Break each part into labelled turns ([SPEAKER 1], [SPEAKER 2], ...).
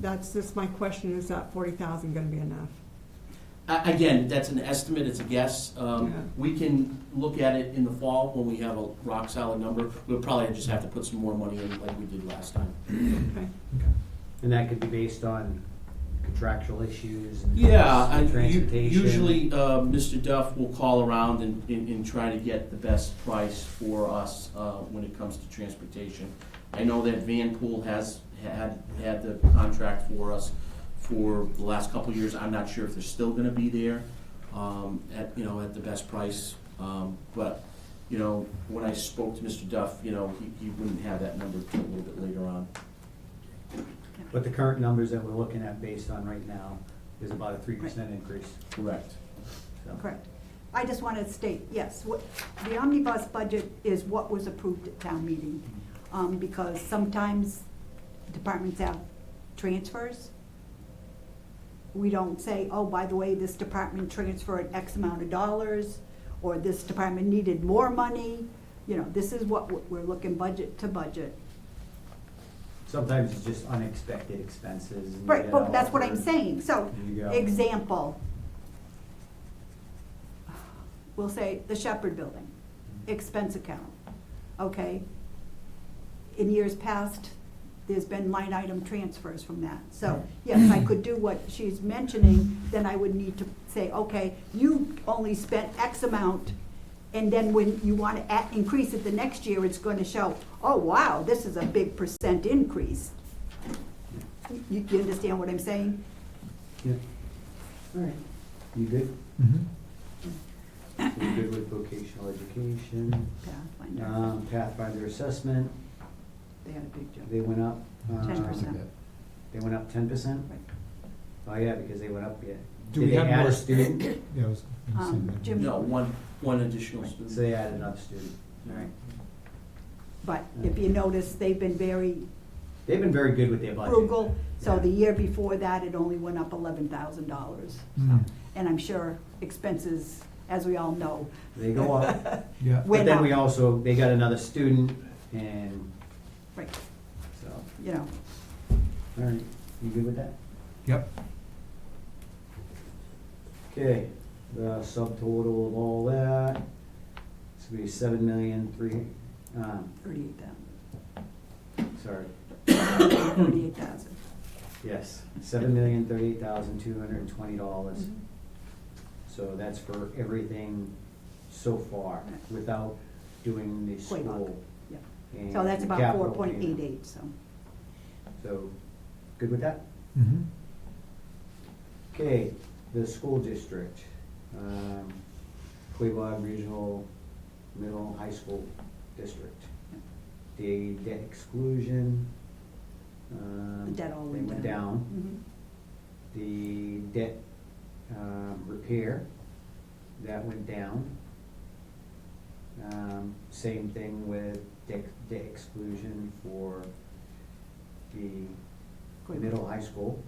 [SPEAKER 1] that's just my question, is that forty thousand gonna be enough?
[SPEAKER 2] A- Again, that's an estimate, it's a guess. Um,
[SPEAKER 1] Yeah.
[SPEAKER 2] We can look at it in the fall when we have a rock solid number. We'll probably just have to put some more money in like we did last time.
[SPEAKER 1] Okay.
[SPEAKER 3] And that could be based on contractual issues and
[SPEAKER 2] Yeah,
[SPEAKER 3] costs
[SPEAKER 2] I,
[SPEAKER 3] and
[SPEAKER 2] u-
[SPEAKER 3] transportation.
[SPEAKER 2] usually, uh, Mr. Duff will call around and, and, and try to get the best price for us, uh, when it comes to transportation. I know that Vanpool has had, had the contract for us for the last couple of years, I'm not sure if they're still gonna be there, um, at, you know, at the best price, um, but, you know, when I spoke to Mr. Duff, you know, he, he wouldn't have that number till a little bit later on.
[SPEAKER 3] But the current numbers that we're looking at based on right now is about a three percent increase,
[SPEAKER 2] Correct.
[SPEAKER 3] so.
[SPEAKER 4] Correct. I just want to state, yes, what, the omnibus budget is what was approved at town meeting. Um, because sometimes departments have transfers. We don't say, oh, by the way, this department transferred X amount of dollars, or this department needed more money. You know, this is what we're- we're looking budget to budget.
[SPEAKER 3] Sometimes it's just unexpected expenses. and you
[SPEAKER 4] Right,
[SPEAKER 3] get
[SPEAKER 4] but that's what I'm
[SPEAKER 3] outward.
[SPEAKER 4] saying, so,
[SPEAKER 3] There you go.
[SPEAKER 4] example. We'll say the Shepherd Building, expense account, okay? In years past, there's been line item transfers from that, so, yes, I could do what she's mentioning, then I would need to say, okay, you only spent X amount, and then when you wanna add, increase it the next year, it's gonna show, oh, wow, this is a big percent increase. You- You understand what I'm saying?
[SPEAKER 3] Yeah,
[SPEAKER 4] All right.
[SPEAKER 3] you good?
[SPEAKER 5] Mhm.
[SPEAKER 3] So You're good with vocational education,
[SPEAKER 4] Pathfinder,
[SPEAKER 3] um, Pathfinder assessment,
[SPEAKER 4] they had a big jump.
[SPEAKER 3] they went up. um,
[SPEAKER 4] 10%.
[SPEAKER 3] They went up ten percent?
[SPEAKER 4] Right.
[SPEAKER 3] Oh, yeah, because they went up, yeah.
[SPEAKER 5] Do
[SPEAKER 3] Did
[SPEAKER 5] we
[SPEAKER 3] they
[SPEAKER 5] have
[SPEAKER 3] add
[SPEAKER 5] more-
[SPEAKER 3] a student?
[SPEAKER 5] Yeah, I was gonna say
[SPEAKER 4] Um,
[SPEAKER 5] that.
[SPEAKER 4] Jim-
[SPEAKER 2] No, one, one additional student.
[SPEAKER 3] So they added another student, all right.
[SPEAKER 4] But if you notice, they've been very
[SPEAKER 3] They've been very good with their budget.
[SPEAKER 4] frugal, so
[SPEAKER 3] Yeah.
[SPEAKER 4] the year before that, it only went up eleven thousand dollars.
[SPEAKER 5] Mm.
[SPEAKER 4] And I'm sure expenses, as we all know.
[SPEAKER 3] They go up.
[SPEAKER 5] Yeah.
[SPEAKER 3] But
[SPEAKER 4] Went
[SPEAKER 3] then
[SPEAKER 4] up,
[SPEAKER 3] we also, they got another student and
[SPEAKER 4] right,
[SPEAKER 3] so,
[SPEAKER 4] you know,
[SPEAKER 3] all right, you good with that?
[SPEAKER 5] Yep.
[SPEAKER 3] Okay, the subtotal of all that, it's gonna be seven million, three, um,
[SPEAKER 4] thirty-eight thousand,
[SPEAKER 3] sorry,
[SPEAKER 4] thirty-eight thousand.
[SPEAKER 3] yes, seven million, thirty-eight thousand, two hundred and twenty dollars.
[SPEAKER 4] Mm-hmm.
[SPEAKER 3] So that's for everything so far,
[SPEAKER 4] Right.
[SPEAKER 3] without doing the
[SPEAKER 4] Quite a lot.
[SPEAKER 3] school.
[SPEAKER 4] Yeah.
[SPEAKER 3] and
[SPEAKER 4] So that's about
[SPEAKER 3] capital
[SPEAKER 4] four point eight
[SPEAKER 3] payment.
[SPEAKER 4] eight, so.
[SPEAKER 3] So, good with that?
[SPEAKER 5] Mhm.
[SPEAKER 3] Okay, the school district, um, Quabog Regional Middle High School District. The debt exclusion, um.
[SPEAKER 4] The debt all
[SPEAKER 3] they
[SPEAKER 4] went down. Mm-hmm.
[SPEAKER 3] The debt, um, repair, that went down. Um, same thing with debt, debt exclusion for the
[SPEAKER 4] Quabog.
[SPEAKER 3] middle high school.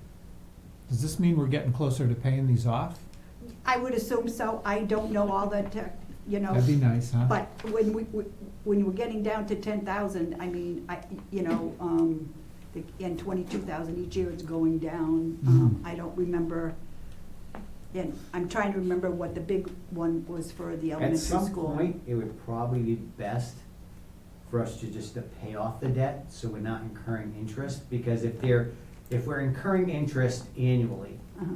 [SPEAKER 5] Does this mean we're getting closer to paying these off?
[SPEAKER 4] Mhm. I would assume so, I don't know all the tech, you know.
[SPEAKER 5] That'd be nice, huh?
[SPEAKER 4] But when we, we- when we're getting down to ten thousand, I mean, I, you know, um, the- and twenty-two thousand each year, it's going down.
[SPEAKER 3] Mm-hmm.
[SPEAKER 4] Um,
[SPEAKER 5] Mhm.
[SPEAKER 4] I don't remember, and I'm trying to remember what the big one was for the
[SPEAKER 3] At
[SPEAKER 4] elementary school.
[SPEAKER 3] some point, it would probably be best for us to just to pay off the debt, so we're not incurring interest, because if they're, if we're incurring interest annually
[SPEAKER 4] Uh-huh.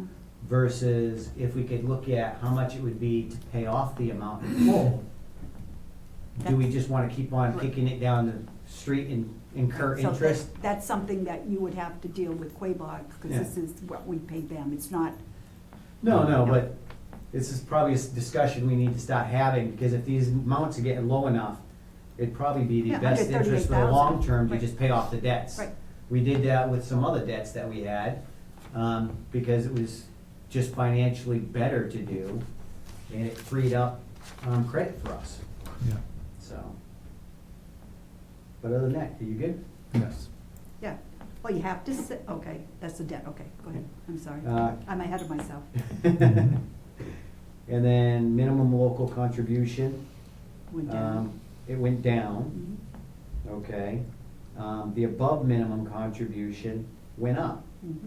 [SPEAKER 3] versus if we could look at how much it would be to pay off the amount in full, do we just wanna keep on kicking it down the street and incur
[SPEAKER 4] So
[SPEAKER 3] interest?
[SPEAKER 4] that- That's something that you would have to deal with Quabog, because
[SPEAKER 3] Yeah.
[SPEAKER 4] this is what we pay them, it's not,
[SPEAKER 3] No, no, but this is probably a s- discussion we need to start having, because if these amounts are getting low enough, it'd probably be the
[SPEAKER 4] Yeah,
[SPEAKER 3] best
[SPEAKER 4] under
[SPEAKER 3] interest for the long
[SPEAKER 4] 38,000,
[SPEAKER 3] term to
[SPEAKER 4] right.
[SPEAKER 3] just pay off the debts.
[SPEAKER 4] Right.
[SPEAKER 3] We did that with some other debts that we had, um, because it was just financially better to do, and it freed up, um, credit for us,
[SPEAKER 5] Yeah,
[SPEAKER 3] so. But other than that, are you good?
[SPEAKER 5] yes.
[SPEAKER 4] yeah. Well, you have to, s- okay, that's the debt, okay, go ahead, I'm sorry,
[SPEAKER 3] Uh,
[SPEAKER 4] I'm ahead of myself.
[SPEAKER 3] And then minimum local contribution,
[SPEAKER 4] Went down.
[SPEAKER 3] um, it went down.
[SPEAKER 4] Mhm.
[SPEAKER 3] Okay, um, the above minimum contribution went up.
[SPEAKER 4] Mm-hmm.